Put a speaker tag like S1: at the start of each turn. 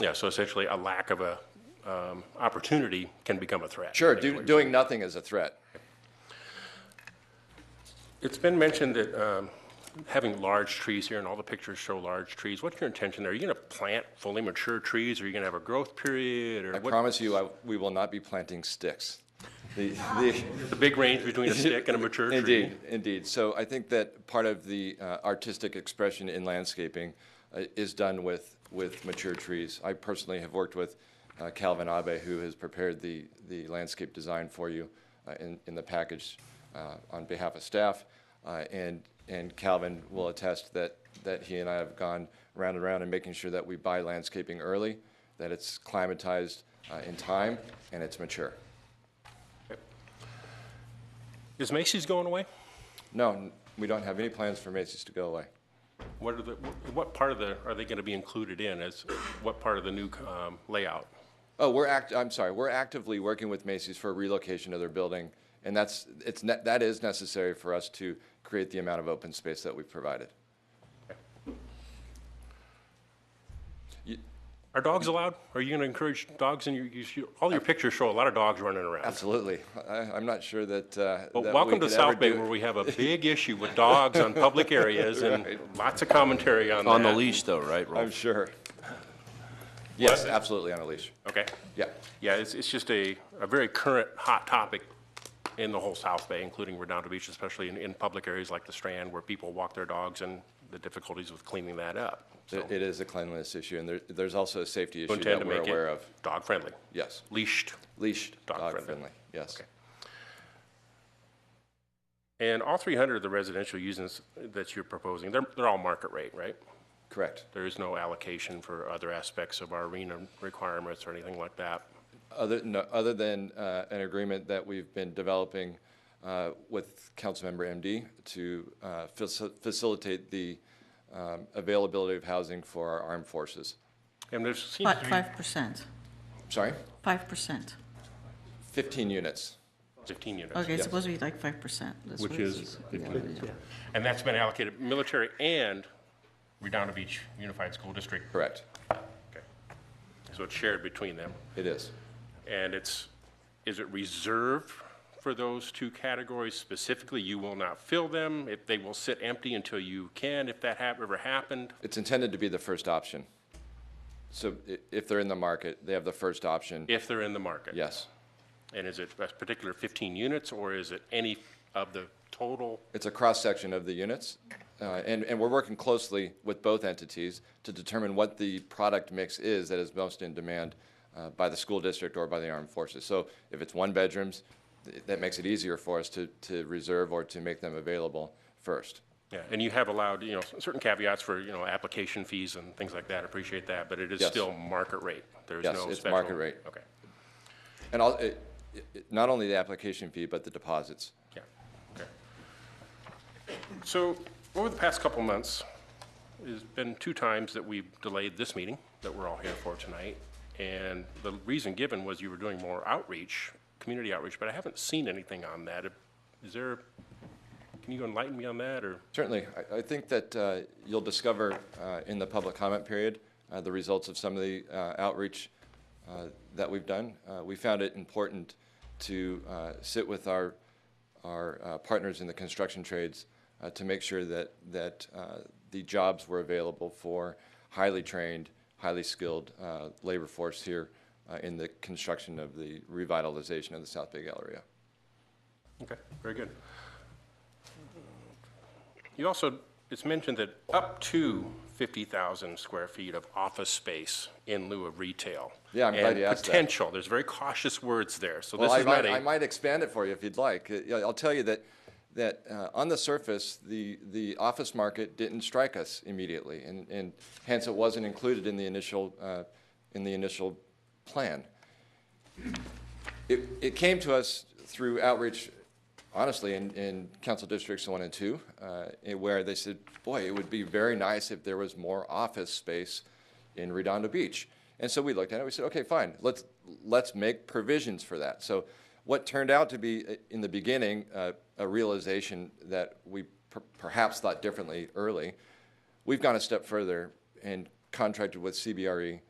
S1: Yeah, so essentially, a lack of a um, opportunity can become a threat.
S2: Sure, do, doing nothing is a threat.
S1: It's been mentioned that um, having large trees here, and all the pictures show large trees. What's your intention there? Are you going to plant fully mature trees, or are you going to have a growth period? Or
S2: I
S1: what-
S2: promise you, I, we will not be planting sticks. The, the,
S1: The big range between a stick and a mature tree?
S2: Indeed, indeed. So I think that part of the uh, artistic expression in landscaping uh, is done with, with mature trees. I personally have worked with uh, Calvin Abe, who has prepared the, the landscape design for you uh, in, in the package uh, on behalf of staff. Uh, And, and Calvin will attest that, that he and I have gone round and round in making sure that we buy landscaping early, that it's climatized uh, in time, and it's mature.
S1: Is Macy's going away?
S2: No, n- we don't have any plans for Macy's to go away.
S1: What are the, wh- what part of the, are they going to be included in as, what part of the new um, layout?
S2: Oh, we're act, I'm sorry, we're actively working with Macy's for relocation of their building, and that's, it's, ne- that is necessary for us to create the amount of open space that we've provided.
S1: Are dogs allowed? Are you going to encourage dogs in your, you- you- all your pictures show a lot of dogs running around.
S2: Absolutely. I, I'm not sure that, uh. that
S1: But
S2: we
S1: welcome to
S2: could ever
S1: South Bay
S2: do-
S1: where we have a big issue with dogs on public areas and lots of commentary on that.
S3: On the leash though, right, Rolf?
S2: I'm sure. Yes,
S1: What?
S2: absolutely, on a leash.
S1: Okay.
S2: Yeah,
S1: Yeah, it's, it's just a, a very current, hot topic in the whole South Bay, including Redondo Beach, especially in, in public areas like the Strand where people walk their dogs and the difficulties with cleaning that up. So
S2: it it is a cleanliness issue, and there, there's also a safety
S1: you
S2: issue
S1: intend
S2: that
S1: to
S2: we're
S1: make
S2: aware
S1: it
S2: of.
S1: dog-friendly?
S2: Yes,
S1: Leashed?
S2: leashed,
S1: Dog friendly.
S2: dog friendly, yes.
S1: Okay. And all 300 of the residential uses that you're proposing, they're, they're all market rate, right?
S2: Correct.
S1: There is no allocation for other aspects of our arena requirements or anything like that?
S2: Other, no, other than uh, an agreement that we've been developing uh, with Councilmember MD to uh, faci- facilitate the um, availability of housing for our armed forces.
S1: And there seems
S4: Fi-
S1: to
S4: Five percent,
S2: Sorry?
S4: five percent.
S2: 15 units.
S1: be 15 units.
S4: Okay, it's supposed to be like five percent.
S1: Which is 15. And that's been allocated military and Redondo Beach Unified School District.
S2: Correct.
S1: Okay. So it's shared between them.
S2: It is.
S1: And it's, is it reserved for those two categories specifically? You will not fill them, if they will sit empty until you can, if that hap, ever happened?
S2: It's intended to be the first option. So i- if they're in the market, they have the first option.
S1: If they're in the market?
S2: Yes.
S1: And is it a particular 15 units, or is it any of the total?
S2: It's a cross-section of the units, uh, and, and we're working closely with both entities to determine what the product mix is that is most in demand uh, by the school district or by the armed forces. So if it's one bedrooms, th- that makes it easier for us to, to reserve or to make them available first.
S1: Yeah, and you have allowed, you know, certain caveats for, you know, application fees and things like that, appreciate that, but it is
S2: Yes.
S1: still market rate? There's
S2: Yes,
S1: no
S2: it's
S1: special-
S2: market rate.
S1: Okay,
S2: And all, it, it, not only the application fee, but the deposits.
S1: yeah, okay. So over the past couple months, there's been two times that we've delayed this meeting that we're all here for tonight, and the reason given was you were doing more outreach, community outreach, but I haven't seen anything on that. Is there, can you enlighten me on that, or?
S2: Certainly. I, I think that uh, you'll discover uh, in the public comment period uh, the results of some of the uh, outreach uh, that we've done. Uh, we found it important to uh, sit with our our uh, partners in the construction trades uh, to make sure that that uh, the jobs were available for highly trained, highly skilled uh, labor force here uh, in the construction of the revitalization of the South Bay Galleria.
S1: Okay, very good. You also, it's mentioned that up to 50,000 square feet of office space in lieu of retail.
S2: Yeah, I'm glad you asked that.
S1: And potential, there's very cautious words there, so
S2: Well,
S1: this
S2: I
S1: is not
S2: might, I
S1: a,
S2: might expand it for you if you'd like. Uh, yeah, I'll tell you that, that uh, on the surface, the, the office market didn't strike us immediately, and, and hence it wasn't included in the initial, uh, in the initial plan. It, it came to us through outreach, honestly, in, in council districts one and two, uh, in where they said, boy, it would be very nice if there was more office space in Redondo Beach. And so we looked at it, we said, okay, fine, let's, let's make provisions for that. So what turned out to be, uh, in the beginning, uh, a realization that we per- perhaps thought differently early, we've gone a step further and contracted with CBRE